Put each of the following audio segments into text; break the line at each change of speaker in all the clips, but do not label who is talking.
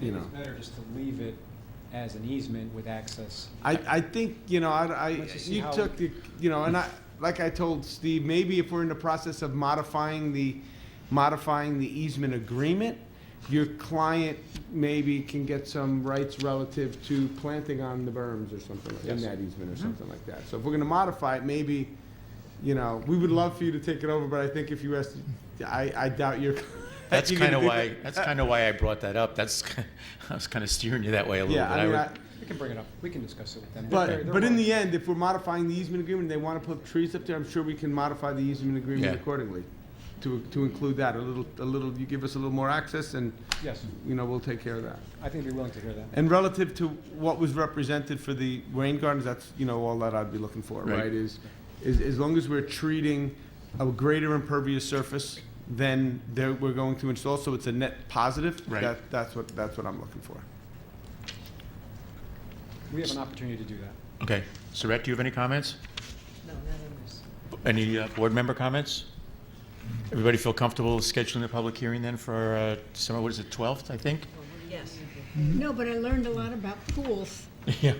you
Maybe
know.
it's better just to leave it as an easement with access.
I, I think, you know, I, I,
Let's just see
you
how-
took, the- you know, and I, like I told Steve, maybe if we're in the process of modifying the, modifying the easement agreement, your client maybe can get some rights relative to planting on the berms or something, like- in
Yes.
that easement or something like that. So if we're gonna modify it, maybe, you know, we would love for you to take it over, but I think if you asked, I, I doubt you're.
That's
you're gonna
kind of
do
why,
that.
that's kind of why I brought that up. That's, I was kind of steering you that way a little bit.
Yeah, I mean,
would-
I,
We can bring it up, we can discuss it with them. They're-
But,
they're
but in
willing.
the end, if we're modifying the easement agreement, they want to put trees up there, I'm sure we can modify the easement agreement
Yeah.
accordingly to, to include that, a little, a little, you give us a little more access and,
Yes,
you know, we'll take care of that.
I think they're willing to hear that.
And relative to what was represented for the rain gardens, that's, you know, all that I'd be looking for,
Right.
right? Is, is, as long as we're treating a greater impervious surface than there, we're going to install, so it's a net positive.
Right.
that- That's what, that's what I'm looking for.
We have an opportunity to do that.
Okay, Saret, do you have any comments?
No, not in this.
Any uh, board member comments? Everybody feel comfortable scheduling the public hearing then for uh, December, what is it, 12th, I think?
Yes.
No, but I learned a lot about pools.
Yeah.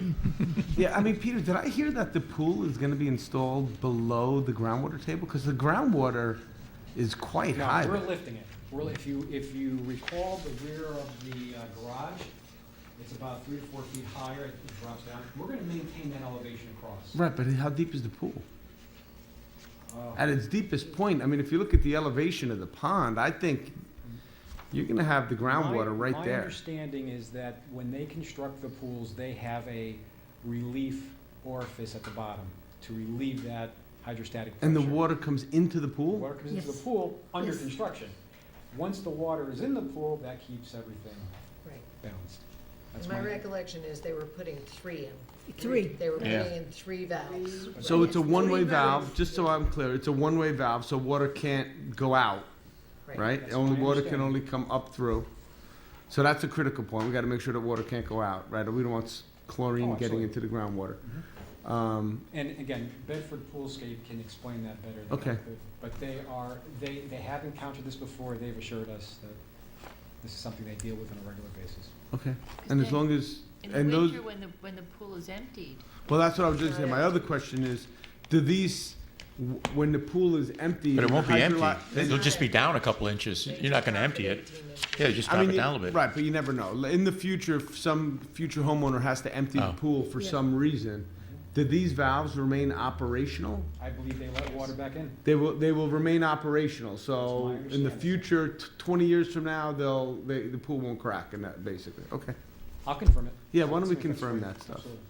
Yeah, I mean, Peter, did I hear that the pool is going to be installed below the groundwater table? Because the groundwater is quite high.
No, we're lifting it. We're, li- if you, if you recall the rear of the uh, garage, it's about three to four feet higher, it drops down. We're gonna maintain that elevation across.
Right, but how deep is the pool?
Uh,
At its deepest point, I mean, if you look at the elevation of the pond, I think you're going to have the groundwater
my-
right
My
there.
understanding is that when they construct the pools, they have a relief orifice at the bottom to relieve that hydrostatic pressure.
And the water comes into the
The
pool?
Water comes into the
Yes.
pool under
Yes.
construction. Once the water is in the pool, that keeps everything
Right.
balanced. That's
My
my-
recollection is they were putting three in.
Three.
They were
Yeah.
putting in three valves.
So it's a
Three
one-way valve,
valves.
just so I'm clear, it's a one-way valve, so water can't go out, right?
That's
Only
my
water can
understanding.
only come up through. So that's a critical point. We got to make sure that water can't go out, right? We don't want s-
Oh,
chlorine getting
absolutely. Mm-hmm.
into the groundwater. Um,
And again, Bedford Poolscape can explain that better than I
Okay.
could. But they are, they, they have encountered this before, they've assured us that this is something they deal with on a regular basis.
okay. And as
Okay.
long as,
In
and
the
those,
winter, when the, when the pool is emptied,
well, that's what I was just saying. My other question is, do these, w- when the pool is empty.
But it won't be empty.
hydrolo-
It'll just be down a couple inches. You're not going to empty it. Yeah, just
I
drop
mean,
it down a little bit.
Right, but you never know. L- In the future, if some future homeowner has to empty the
Oh.
pool for
Yeah.
some reason, do these valves remain operational?
I believe they let water back in.
They will, they will remain operational,
my
so in the
understanding.
future, t- twenty years from now, they'll, they, the pool won't crack and that, basically, okay.
I'll confirm it.
Yeah, why don't we
Let's make
confirm
sure.
that stuff?
Absolutely.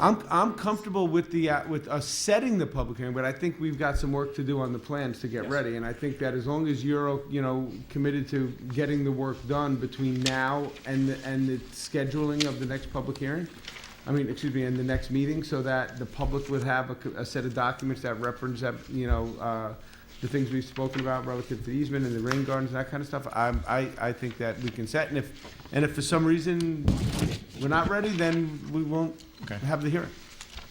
I'm, I'm comfortable with the, uh, with us setting the public hearing, but I think we've got some work to do on the plans to get
Yes.
ready. And I think that as long as you're, o- you know, committed to getting the work done between now and, the- and the scheduling of the next public hearing, I mean, excuse me, and the next meeting, so that the public would have a, co- a set of documents that reference that, you know, uh, the things we've spoken about relative to easement and the rain gardens, and that kind of stuff, I'm, I, I think that we can set. And if, and if for some reason we're not ready, then we won't
Okay.
have the hearing.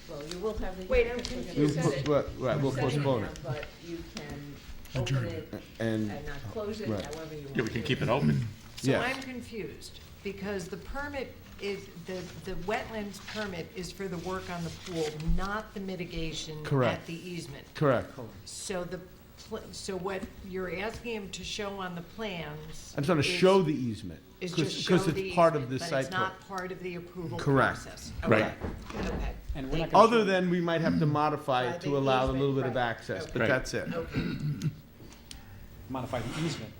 Well, you will have the.
Wait, I'm
We're gonna-
confused. You
We'll
said
po-
it.
right, right, we'll
You're setting
postpone
now,
it.
But you can open it
And,
and not close it,
Right.
however you want.
Yeah, we can keep it open.
So
Yeah.
I'm confused, because the permit is, the, the wetlands permit is for the work on the pool, not the mitigation
Correct.
at the easement.
correct.
So the, pl- so what you're asking him to show on the plans.
I'm trying to
is-
show the easement.
Is
because-
just show the.
Because it's part of
easement,
the
But
site
it's
plan.
not part of the approval
Correct.
process.
Right.
Okay, okay.
And we're not gonna
Other
show-
than we might have to modify
By
it to
the
allow a little
easement,
bit of
right.
access, but
Right.
that's it.
Okay.
Modify the easement.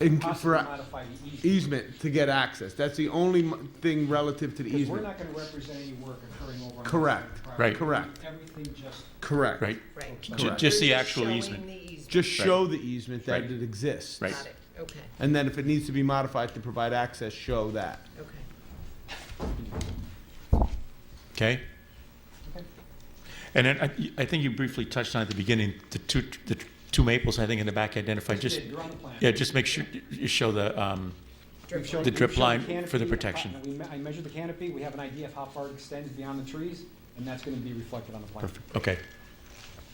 And
Possibly
for
modify the easement.
easement to get access, that's the only mo- thing relative to the
Because we're
easement.
not gonna represent any work occurring over on. the
e-, Correct.
property.
Right.
Correct.
Everything just
Correct.
Right?
Right.
J-
Correct.
Just the
You're
actual
showing
easement.
the easement.
Just show the easement that
Right.
it exists.
Right.
Got it, okay,
And then if it needs to be modified to provide access, show that.
okay.
Okay? And then I, I think you briefly touched on at the beginning, the two, the two maples, I think, in the back identified. Just,
You're on the plan.
yeah, just make sure you show the, um,
We've shown-
The
we've
drip
shown
line for
canopy,
the
uh,
protection.
we me- I measured the canopy, we have an idea of how far it extends beyond the trees, and that's gonna be reflected on the plan.
perfect, okay.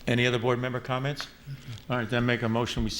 Any other board member comments? All right, then make a motion, we